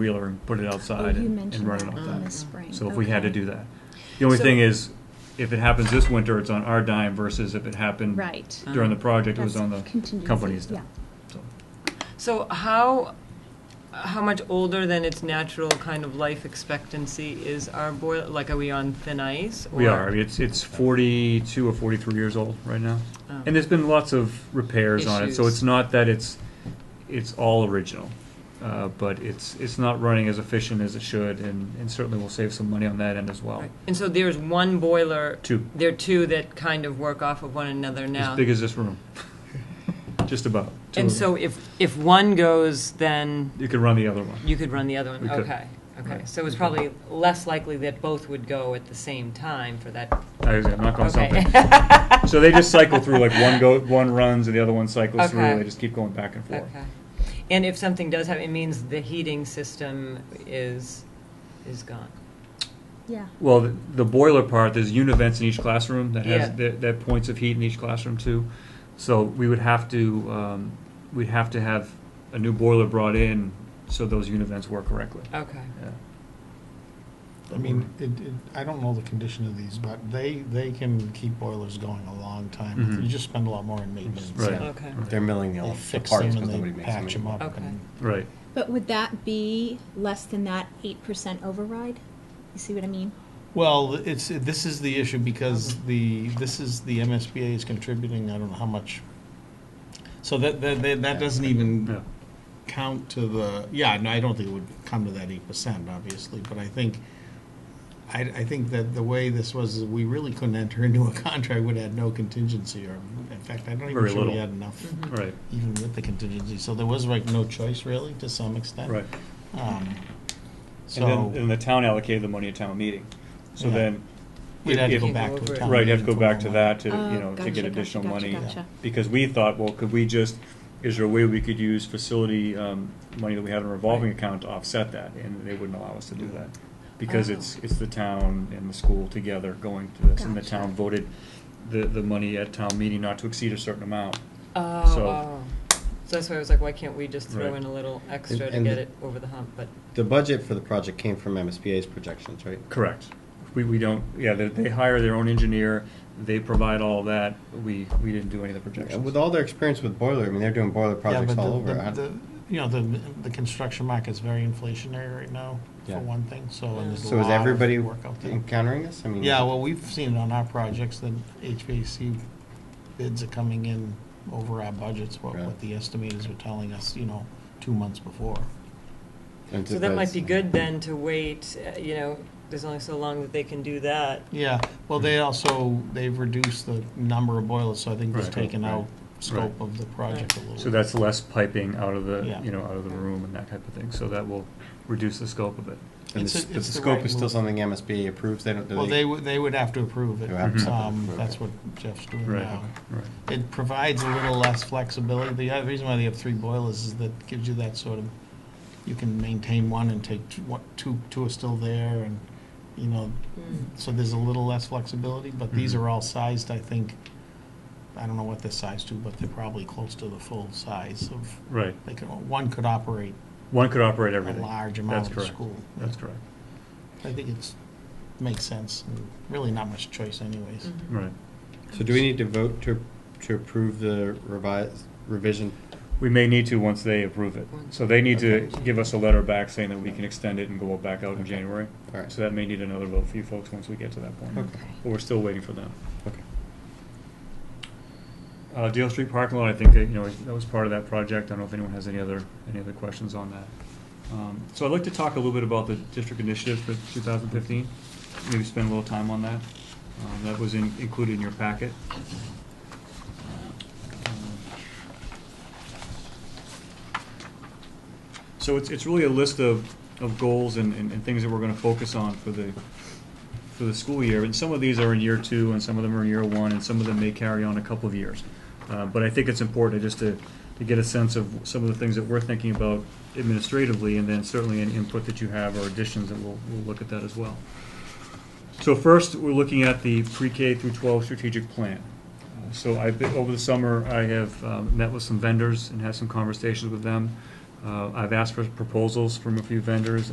wheeler and put it outside Oh, and you and mentioned run it that off in the that. spring. So if we had to Okay. do that. The only So- thing is, if it happens this winter, it's on our dime versus if it happened Right. during the project, it was That's on the contingency, company's dime. So, So how, how much older than its natural kind of life expectancy is our boiler? Like, are we on thin ice? We or- are, I mean, it's, it's forty-two or forty-three years old right now. Oh. And there's been lots of repairs on it, so Issues. it's not that it's, it's all original. Uh, but it's, it's not running as efficient as it should and, and certainly we'll save some money on that end as well. Right. And so there's one boiler. Two. There are two that kind of work off of one another now. As big as this room. Just about. Two And of them. so if, if one goes, then You could run the other one. you could run the other one? We could. Okay, okay. Right. So it's probably less likely that both would go at the same time for that. I was gonna knock on Okay. something. So they just cycle through, like one go, one runs and the other one cycles through, Okay. they just keep going back and forth. Okay. And if something does happen, it means the heating system is, is gone. Yeah. Well, the- the boiler part, there's univents in each classroom that has, Yeah. that, that points of heat in each classroom too. So we would have to, um, we'd have to have a new boiler brought in so those univents work correctly. Okay. Yeah. I mean, it, it, I don't know the condition of these, but they, they can keep boilers going a long time. Mhm. You just spend a lot more in maintenance. Right. Okay. They're milling the They ele- the fix parts them because nobody and they makes them. patch them up. Okay. and- Right. But would that be less than that eight percent override? You see what I mean? Well, it's, this is the issue because Mm-hmm. the, this is, the MSBA is contributing, I don't know how much. So that, that, that that doesn't Yeah. even count to the, yeah, no, I don't think it would come to that eight percent, obviously, but I think, I, I think that the way this was, is we really couldn't enter into a contract, would had no contingency, or, in fact, I don't even Very sure we little. had enough, Right. even with the contingency, so there was like no choice really, to some extent. Right. Um, And then, So, and the town allocated the money at town meeting. So Yeah. then. we'd have to if- go if- back to a town Right, you have to meeting go for back to more. that to, you Oh, know, to gotcha, get gotcha, additional gotcha, money. gotcha. Because we thought, well, could we just, is there a way we could use facility, um, money that we have in a revolving account to offset that? And they wouldn't allow us to do that. Because Oh. it's, it's the town and the school together going to this, and the Gotcha. town voted the, the money at town meeting not to exceed a certain amount. Oh, So- wow. So that's why I was like, why can't we just throw Right. in a little extra to and get the- it over the hump? But, The budget for the project came from MSBA's projections, right? Correct. We, we don't, yeah, they, they hire their own engineer, they provide all that, we, we didn't do any of the And projections. with all their experience with boiler, I mean, they're doing boiler Yeah, projects but all the- over. the- I- the- You know, the, the construction market's very inflationary right now, Yeah. for one thing, so and there's a So is lot everybody of work out there. encountering this? I mean. Yeah, well, we've seen it on our projects, that HVAC bids are coming in over our budgets, what, Right. what the estimators were telling us, you know, two months before. and so did that those- might be good then to wait, uh, you know, there's only so long that they can do that. Yeah, well, they Mm-hmm. also, they've reduced the number of boilers, so I think they've Right. taken out scope Right. of the project a little. So that's less piping out of the, Yeah. you know, out of the room and that type of thing, so that will reduce the scope of it. And It's the s- a- but the it's the scope right is still move. something MSBA approves, they don't, do Well, they they? would, they would have to approve it. They would have to Um, approve That's it. what Jeff's doing Right, now. right. It provides a little less flexibility. The other reason why they have three boilers is that gives you that sort of, you can maintain one and take two, what, two, two are still there and, you know, so there's a little less flexibility, but these Mhm. are all sized, I think, I don't know what they're sized to, but they're probably close to the full size of, Right. they could, one could operate One could operate a everything. large That's amount of correct. school. That's correct. I think it's, makes sense, and really not much choice anyways. Right. So do we need to vote to, to approve the revised, revision? We may need to once they approve it. So they need to give us a letter back saying that we can extend it and go back out in Okay. January. All right. So that may need another vote for you folks once we get to that point. Okay. But we're still waiting for them. Okay. Uh, Dale Street parking lot, I think that, you know, that was part of that project. I don't know if anyone has any other, any other questions on that. Um, So I'd like to talk a little bit about the district initiative for 2015, maybe spend a little time on that. Um, That was in- included in your packet. So it's, it's really a list of, of goals and, and and things that we're gonna focus on for the, for the school year. And some of these are in year two, and some of them are in year one, and some of them may carry on a couple of years. Uh, But I think it's important just to, to get a sense of some of the things that we're thinking about administratively, and then certainly any input that you have or additions, and we'll, we'll look at that as well. So first, we're looking at the pre-K through 12 strategic plan. Uh, So I've been, over the summer, I have um, met with some vendors and had some conversations with them. Uh, I've asked for proposals from a few vendors,